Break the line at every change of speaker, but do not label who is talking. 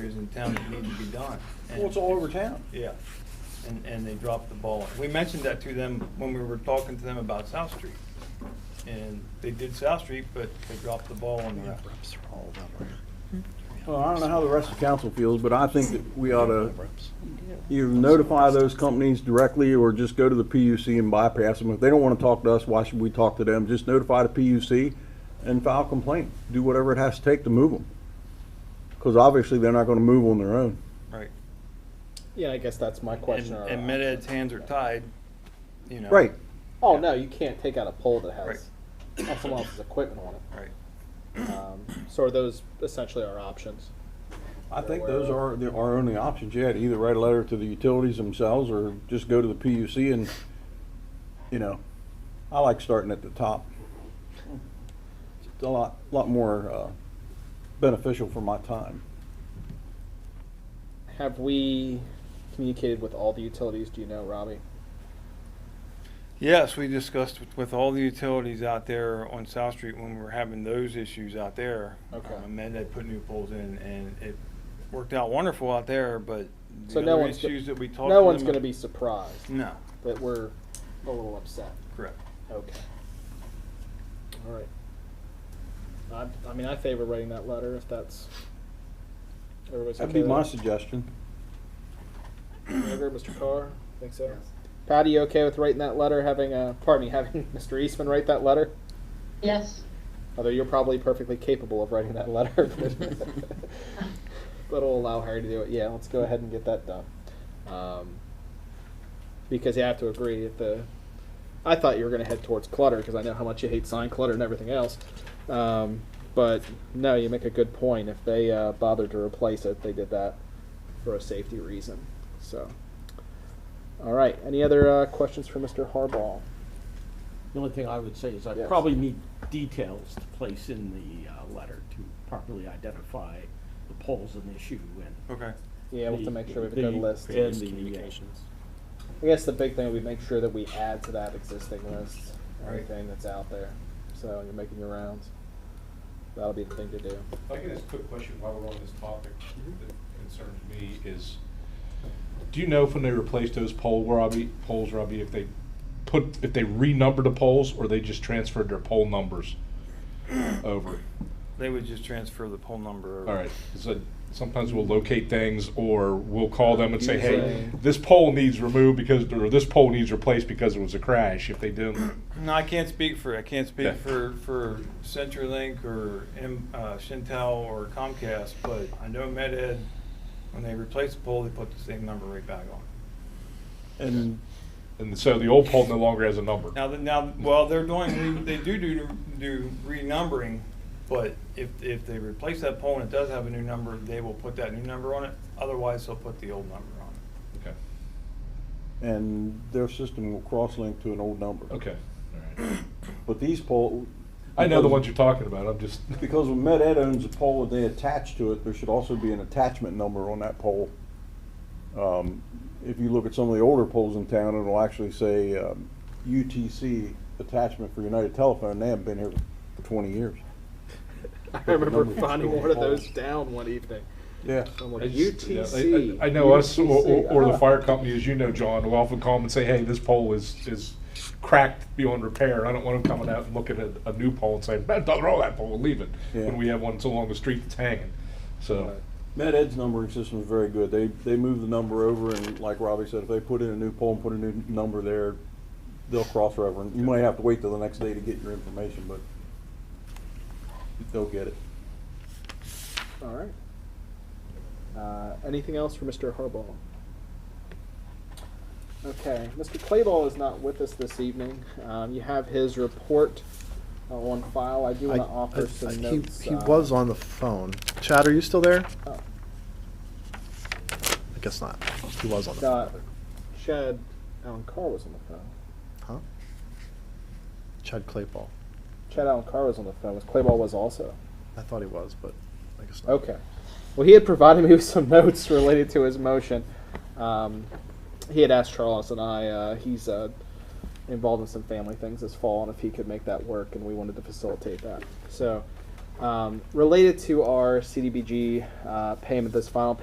areas in town that need to be done.
Well, it's all over town.
Yeah, and, and they dropped the ball. We mentioned that to them when we were talking to them about South Street. And they did South Street, but they dropped the ball on the rest.
Well, I don't know how the rest of council feels, but I think that we ought to either notify those companies directly or just go to the PUC and bypass them. If they don't want to talk to us, why should we talk to them? Just notify the PUC and file a complaint. Do whatever it has to take to move them. Because obviously, they're not going to move on their own.
Right.
Yeah, I guess that's my
And,
question. or-
and Med Ed's hands are tied, you know.
Right.
Oh, no, you can't take out a pole that
Right.
has someone else's equipment on it.
Right.
Um, So are those essentially our options?
I think those are the- our only options yet. Either write a letter to the utilities themselves or just go to the PUC and, you know, I like starting at the top. It's a lot, lot more uh, beneficial for my time.
Have we communicated with all the utilities, do you know, Robbie?
Yes, we discussed with, with all the utilities out there on South Street when we were having those issues out there.
Okay.
Um, And they put new poles in and it worked out wonderful out there, but
So
the
no
other
one's go-
issues that we talked to
No one's
them-
gonna be surprised
No,
that we're a little upset.
correct.
Okay. All right. I, I mean, I favor writing that letter if that's, everybody's okay
That'd be
with
my
that?
suggestion.
Gallagher, Mr. Carr, think so? Patty, you okay with writing that letter, having, uh, pardon me, having Mr. Eastman write that letter?
Yes,
Although you're probably perfectly capable of writing that letter. but- But it'll allow Harry to do it. Yeah, let's go ahead and get that done. Um, because you have to agree that the, I thought you were gonna head towards clutter, because I know how much you hate sign clutter and everything else. Um, but no, you make a good point. If they, uh, bothered to replace it, they did that for a safety reason, so. All right, any other, uh, questions for Mr. Harbaugh?
The only thing I would say is I
Yes.
probably need details to place in the uh, letter to properly identify the polls and issue and.
Okay.
Yeah, we'll have to make sure we have a
the-
good list.
And the, uh,
I guess the big thing would be make sure that we add to that existing list
Right.
everything that's out there. So when you're making your rounds. That'll be the thing to do.
If I could ask a quick question while we're on this topic that concerns me is, do you know if when they replaced those pole, Robbie, poles, Robbie, if they put, if they renumbered the poles or they just transferred their pole numbers over?
They would just transfer the poll number.
All right, so sometimes we'll locate things or we'll call them and say, hey,
Usually-
this pole needs removed because, or this pole needs replaced because it was a crash. If they didn't,
No, I can't speak for, I can't speak
Yeah.
for, for CenturyLink or M, uh, Shintel or Comcast, but I know Med Ed, when they replaced the pole, they put the same number right back on.
And
and so the old pole no longer has a number.
Now, the- now, well, they're doing, re- they do do, do renumbering, but if, if they replace that pole and it does have a new number, they will put that new number on it. Otherwise, they'll put the old number on it.
Okay,
and their system will cross-link to an old number.
okay, all right.
But these poll.
I know the ones you're talking about, I'm just.
Because when Med Ed owns a pole and they attach to it, there should also be an attachment number on that pole. Um, If you look at some of the older poles in town, it'll actually say um, UTC attachment for United Telephone, they haven't been here for twenty years.
I
the
remember
numbers
finding
to the
one of those
polls.
down one evening.
Yeah.
I'm
I
like,
just- yeah, I-
UTC.
I I know us or, or-
UTC,
or
uh-huh.
the
ah."
fire company, as you know, John, will often call them and say, hey, this pole is, is cracked beyond repair. I don't want them coming out and looking at a new pole and saying, man, don't roll that pole, leave it.
Yeah.
When we have one so long the street that's hanging. So,
Med Ed's numbering system is very good. They, they move the number over and like Robbie said, if they put in a new pole and put a new number there, they'll cross-reference. You might have to wait till the next day to get your information, but they'll get it.
All right. Uh, anything else for Mr. Harbaugh? Okay, Mr. Clayball is not with us this evening. Um, you have his report uh, on file. I do
I-
want to offer
I-
some
I- he-
notes.
He
uh,
was on the phone. Chad, are you still there?
Oh.
I guess not. He was on the
Uh,
phone.
Chad Allen Carr was on the phone.
Huh? Chad Claypool.
Chad Allen Carr was on the phone. Was Clayball was also.
I thought he was, but I guess not.
Okay. Well, he had provided me with some notes related to his motion. Um, he had asked Charles and I. Uh, he's uh, involved in some family things this fall, and if he could make that work, and we wanted to facilitate that. So Um, related to our CDBG uh, payment, this final